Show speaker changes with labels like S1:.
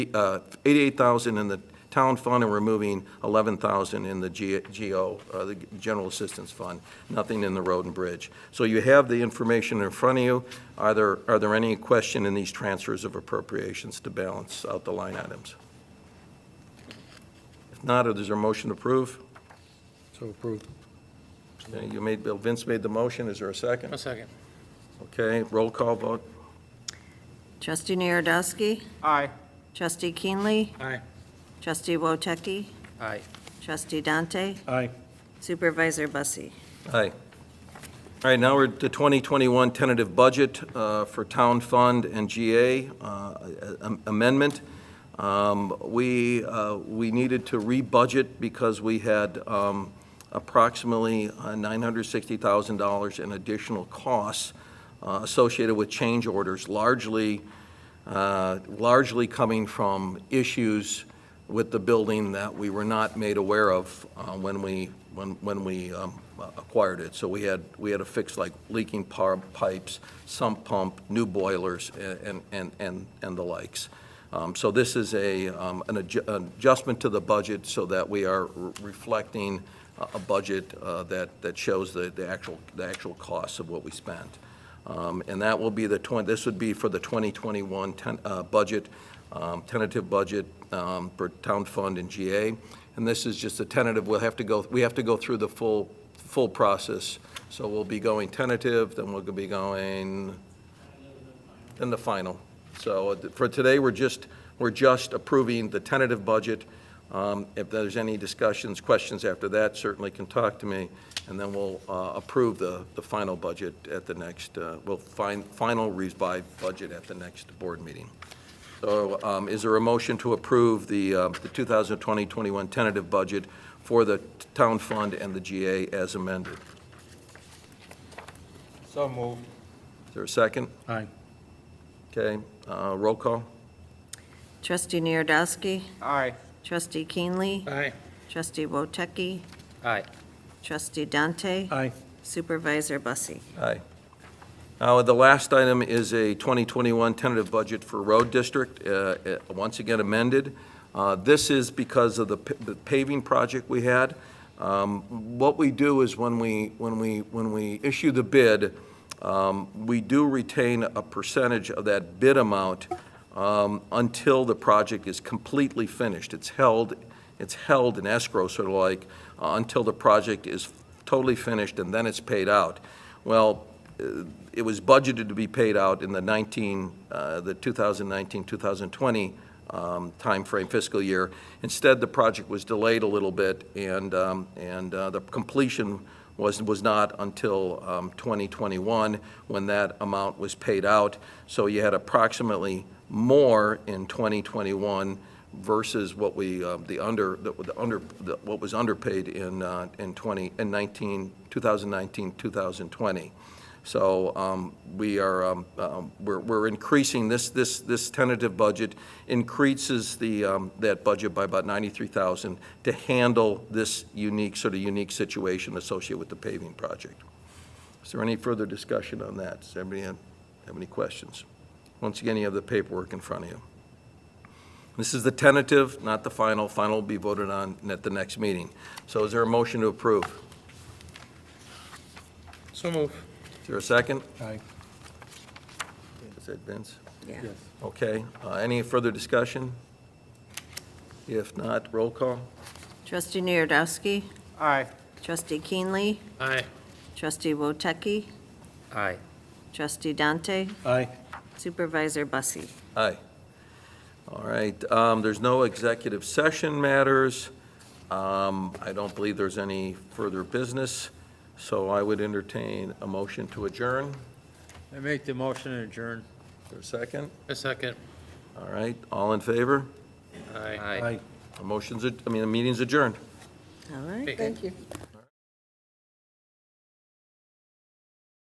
S1: uh, 88,000 in the town fund and removing 11,000 in the G- GO, uh, the General Assistance Fund, nothing in the road and bridge. So you have the information in front of you. Are there, are there any question in these transfers of appropriations to balance out the line items? If not, is there a motion to approve?
S2: So approved.
S1: Uh, You made, Bill Vince made the motion, is there a
S3: A
S1: second?
S3: second.
S1: Okay, roll call vote.
S4: Trustee Narodowski.
S3: Aye.
S4: Trustee Keenley.
S3: Aye.
S4: Trustee Woteki.
S3: Aye.
S4: Trustee Dante.
S2: Aye.
S4: Supervisor Bussie.
S1: Aye. All right, now we're at the 2021 tentative budget uh, for Town Fund and GA uh, am- amendment. Um, We, uh, we needed to re-budget because we had um, approximately uh, $960,000 in additional costs uh, associated with change orders, largely, uh, largely coming from issues with the building that we were not made aware of uh, when we, when when we um, acquired it. So we had, we had to fix like leaking par- pipes, sump pump, new boilers, and, and, and and the likes. Um, So this is a, um, an adju- an adjustment to the budget so that we are re- reflecting a- a budget uh, that, that shows the, the actual, the actual costs of what we spent. Um, And that will be the 20, this would be for the 2021 ten- uh, budget, um, tentative budget um, for town fund and GA. And this is just a tentative, we'll have to go, we have to go through the full, full process. So we'll be going tentative, then we'll be going, then the final. So uh, for today, we're just, we're just approving the tentative budget. Um, If there's any discussions, questions after that, certainly can talk to me, and then we'll uh, approve the, the final budget at the next, uh, we'll find, final revised budget at the next board meeting. So um, is there a motion to approve the uh, the 2020-21 tentative budget for the town fund and the GA as amended?
S2: So moved.
S1: Is there a second?
S2: Aye.
S1: Okay, uh, roll call?
S4: Trustee Narodowski.
S2: Aye.
S4: Trustee Keenley.
S3: Aye.
S4: Trustee Woteki.
S3: Aye.
S4: Trustee Dante.
S2: Aye.
S4: Supervisor Bussie.
S1: Aye. Now, the last item is a 2021 tentative budget for Road District, uh, uh, once again amended. Uh, This is because of the p- the paving project we had. Um, What we do is when we, when we, when we issue the bid, um, we do retain a percentage of that bid amount um, until the project is completely finished. It's held, it's held in escrow, sort of like, uh, until the project is totally finished, and then it's paid out. Well, uh, it was budgeted to be paid out in the 19, uh, the 2019, 2020 um, timeframe fiscal year. Instead, the project was delayed a little bit, and, um, and uh, the completion was, was not until um, 2021, when that amount was paid out. So you had approximately more in 2021 versus what we, uh, the under, the the under, the- what was underpaid in, uh, in 20, in 19, 2019, 2020. So um, we are, um, um, we're we're increasing, this, this, this tentative budget increases the, um, that budget by about 93,000 to handle this unique, sort of unique situation associated with the paving project. Is there any further discussion on that? Does anybody have have any questions? Once again, you have the paperwork in front of you. This is the tentative, not the final. Final will be voted on at the next meeting. So is there a motion to approve?
S3: So move.
S1: Is there a second?
S2: Aye.
S1: Is that Vince?
S4: Yeah.
S1: Okay. Uh, Any further discussion? If not, roll call?
S4: Trustee Narodowski.
S2: Aye.
S4: Trustee Keenley.
S3: Aye.
S4: Trustee Woteki.
S3: Aye.
S4: Trustee Dante.
S2: Aye.
S4: Supervisor Bussie.
S1: Aye. All right, um, there's no executive session matters. Um, I don't believe there's any further business, so I would entertain a motion to adjourn. Is
S2: I make the motion to adjourn.
S1: there a second?
S3: A second.
S1: All right, all in favor?
S3: Aye.
S1: The motion's, ad- I mean, the meeting's adjourned.
S4: All
S3: Hey.
S4: right, thank you.